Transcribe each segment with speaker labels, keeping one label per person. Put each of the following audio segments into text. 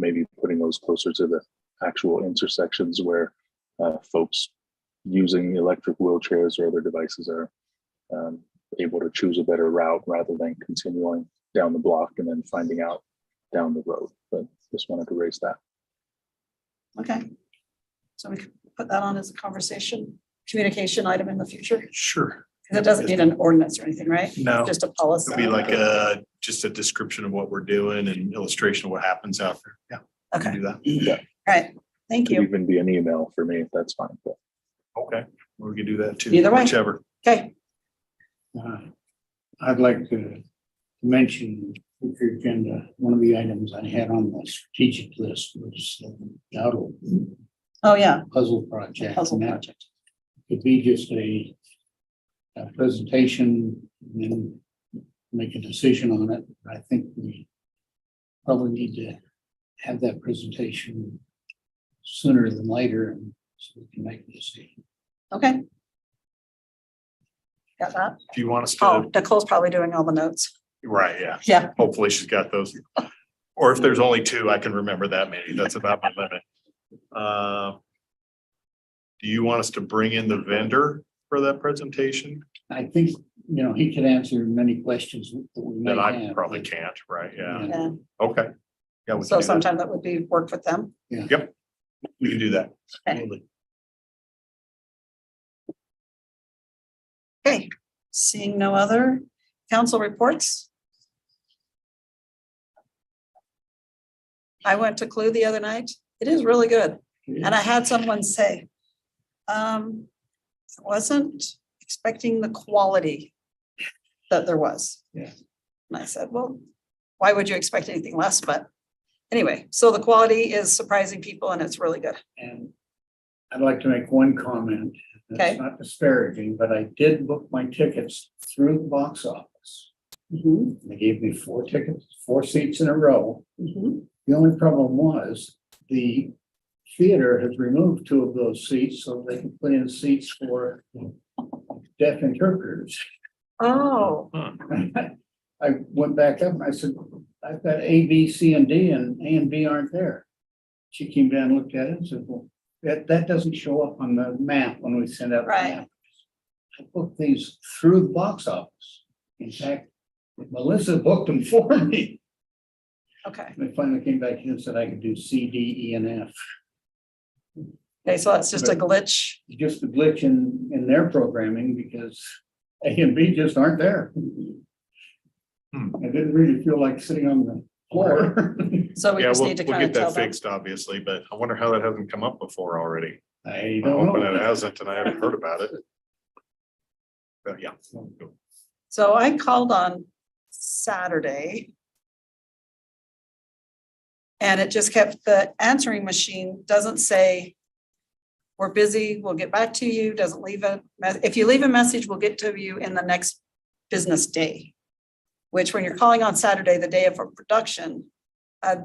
Speaker 1: maybe putting those closer to the actual intersections where uh, folks using electric wheelchairs or other devices are um, able to choose a better route rather than continuing down the block and then finding out down the road. But just wanted to raise that.
Speaker 2: Okay. So we could put that on as a conversation, communication item in the future,
Speaker 3: Sure.
Speaker 2: because it doesn't need an ordinance or anything, right?
Speaker 3: No,
Speaker 2: Just a policy.
Speaker 3: it'll be like a, just a description of what we're doing and illustration of what happens out there. Yeah.
Speaker 2: Okay,
Speaker 3: Do that.
Speaker 2: all right. Thank
Speaker 1: Could
Speaker 2: you.
Speaker 1: even be an email for me if that's fine. But
Speaker 3: Okay, we can do that too.
Speaker 2: Either way.
Speaker 3: Whichever.
Speaker 2: Okay,
Speaker 4: Uh, I'd like to mention, if your agenda, one of the items I had on the strategic list was the Dowdle
Speaker 2: oh, yeah,
Speaker 4: puzzle project.
Speaker 2: puzzle
Speaker 4: And that
Speaker 2: project.
Speaker 4: Could be just a a presentation and then make a decision on it. I think we probably need to have that presentation sooner than later and so we can make a decision.
Speaker 2: Okay. Got that?
Speaker 3: If you want us to,
Speaker 2: Oh, Nicole's probably doing all the notes.
Speaker 3: right, yeah.
Speaker 2: Yeah.
Speaker 3: Hopefully she's got those. Or if there's only two, I can remember that many. That's about my limit. Uh, Do you want us to bring in the vendor for that presentation?
Speaker 4: I think, you know, he could answer many questions that we may
Speaker 3: That I
Speaker 4: have.
Speaker 3: probably can't, right? Yeah,
Speaker 2: Yeah.
Speaker 3: Mm. okay. Yeah, we can
Speaker 2: So
Speaker 3: do that.
Speaker 2: sometime that would be work with them.
Speaker 3: We can do that.
Speaker 2: Okay.
Speaker 3: Absolutely.
Speaker 2: Okay, seeing no other council reports. I went to Clue the other night. It is really good. And I had someone say, um, I wasn't expecting the quality that there was.
Speaker 4: Yeah.
Speaker 2: And I said, well, why would you expect anything less? But anyway, so the quality is surprising people and it's really good.
Speaker 4: And I'd like to make one comment.
Speaker 2: Okay.
Speaker 4: It's not disparaging, but I did book my tickets through the box office. They gave me four tickets, four seats in a row.
Speaker 2: Mhm.
Speaker 4: The only problem was the theater has removed two of those seats so they can put in seats for deaf interpreters.
Speaker 2: Oh,
Speaker 4: I went back up and I said, I've got A, B, C, and D, and A and B aren't there. She came down, looked at it and said, well, that, that doesn't show up on the map when we send out. the
Speaker 2: Right.
Speaker 4: map." I booked these through the box office. In fact, Melissa booked them for me.
Speaker 2: okay.
Speaker 4: They finally came back in and said I could do C, D, E, and F.
Speaker 2: Okay, so that's just a glitch.
Speaker 4: Just a glitch in, in their programming because A and B just aren't there.
Speaker 3: Hmm.
Speaker 4: I didn't really feel like sitting on the floor.
Speaker 2: So we
Speaker 3: Yeah,
Speaker 2: just
Speaker 3: we'll, we'll
Speaker 2: need to kind of
Speaker 3: get
Speaker 2: tell
Speaker 3: that
Speaker 2: them.
Speaker 3: fixed, obviously, but I wonder how that hasn't come up before already.
Speaker 4: I
Speaker 3: I'm
Speaker 4: don't
Speaker 3: hoping
Speaker 4: know.
Speaker 3: it hasn't, and I haven't heard about it. But yeah.
Speaker 2: So I called on Saturday. And it just kept, the answering machine doesn't say, we're busy, we'll get back to you, doesn't leave a, me- if you leave a message, we'll get to you in the next business day. Which when you're calling on Saturday, the day of a production, a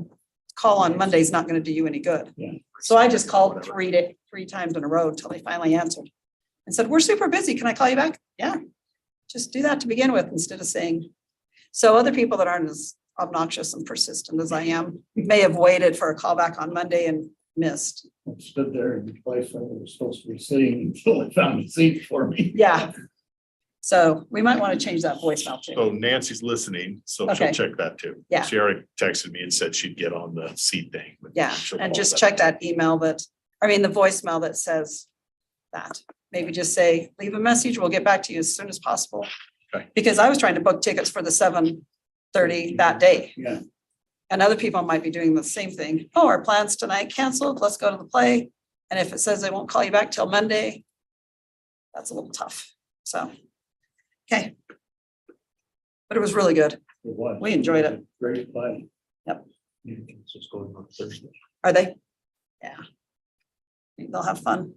Speaker 2: call on Monday is not gonna do you any good. So I just called
Speaker 3: Whatever.
Speaker 2: three to, three times in a row till they finally answered. And said, we're super busy. Can I call you back? Yeah. Just do that to begin with instead of saying. So other people that aren't as obnoxious and persistent as I am may have waited for a call back on Monday and missed.
Speaker 4: Stood there in the place where I was supposed to be sitting until they found a seat for me.
Speaker 2: Yeah. So we might want to change that voicemail too.
Speaker 3: So Nancy's listening, so
Speaker 2: Okay.
Speaker 3: she'll check that too.
Speaker 2: Yeah.
Speaker 3: She already texted me and said she'd get on the seat thing. but
Speaker 2: Yeah,
Speaker 3: she'll
Speaker 2: and
Speaker 3: follow
Speaker 2: just check that email that, I mean, the voicemail that says that. Maybe just say, leave a message, we'll get back to you as soon as possible.
Speaker 3: Okay.
Speaker 2: Because I was trying to book tickets for the seven thirty that day,
Speaker 4: Yeah,
Speaker 2: and other people might be doing the same thing. Oh, our plans tonight canceled, let's go to the play. And if it says they won't call you back till Monday, that's a little tough, so. Okay. But it was really good.
Speaker 4: it was.
Speaker 2: We enjoyed it.
Speaker 4: Great play.
Speaker 2: Yep.
Speaker 4: Yeah, it's just going on Thursday.
Speaker 2: Are they? Yeah. Think They'll have fun.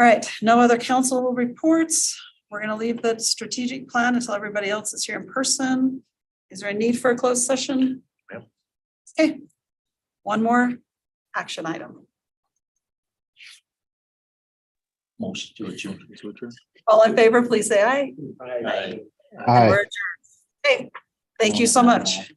Speaker 2: All right, no other council reports. We're gonna leave the strategic plan until everybody else is here in person. Is there a need for a closed session?
Speaker 3: No.
Speaker 2: Okay. One more action item.
Speaker 1: motion to adjourn.
Speaker 2: All in favor, please say aye.
Speaker 4: I-
Speaker 2: And we're adjourned. Okay, thank you so much.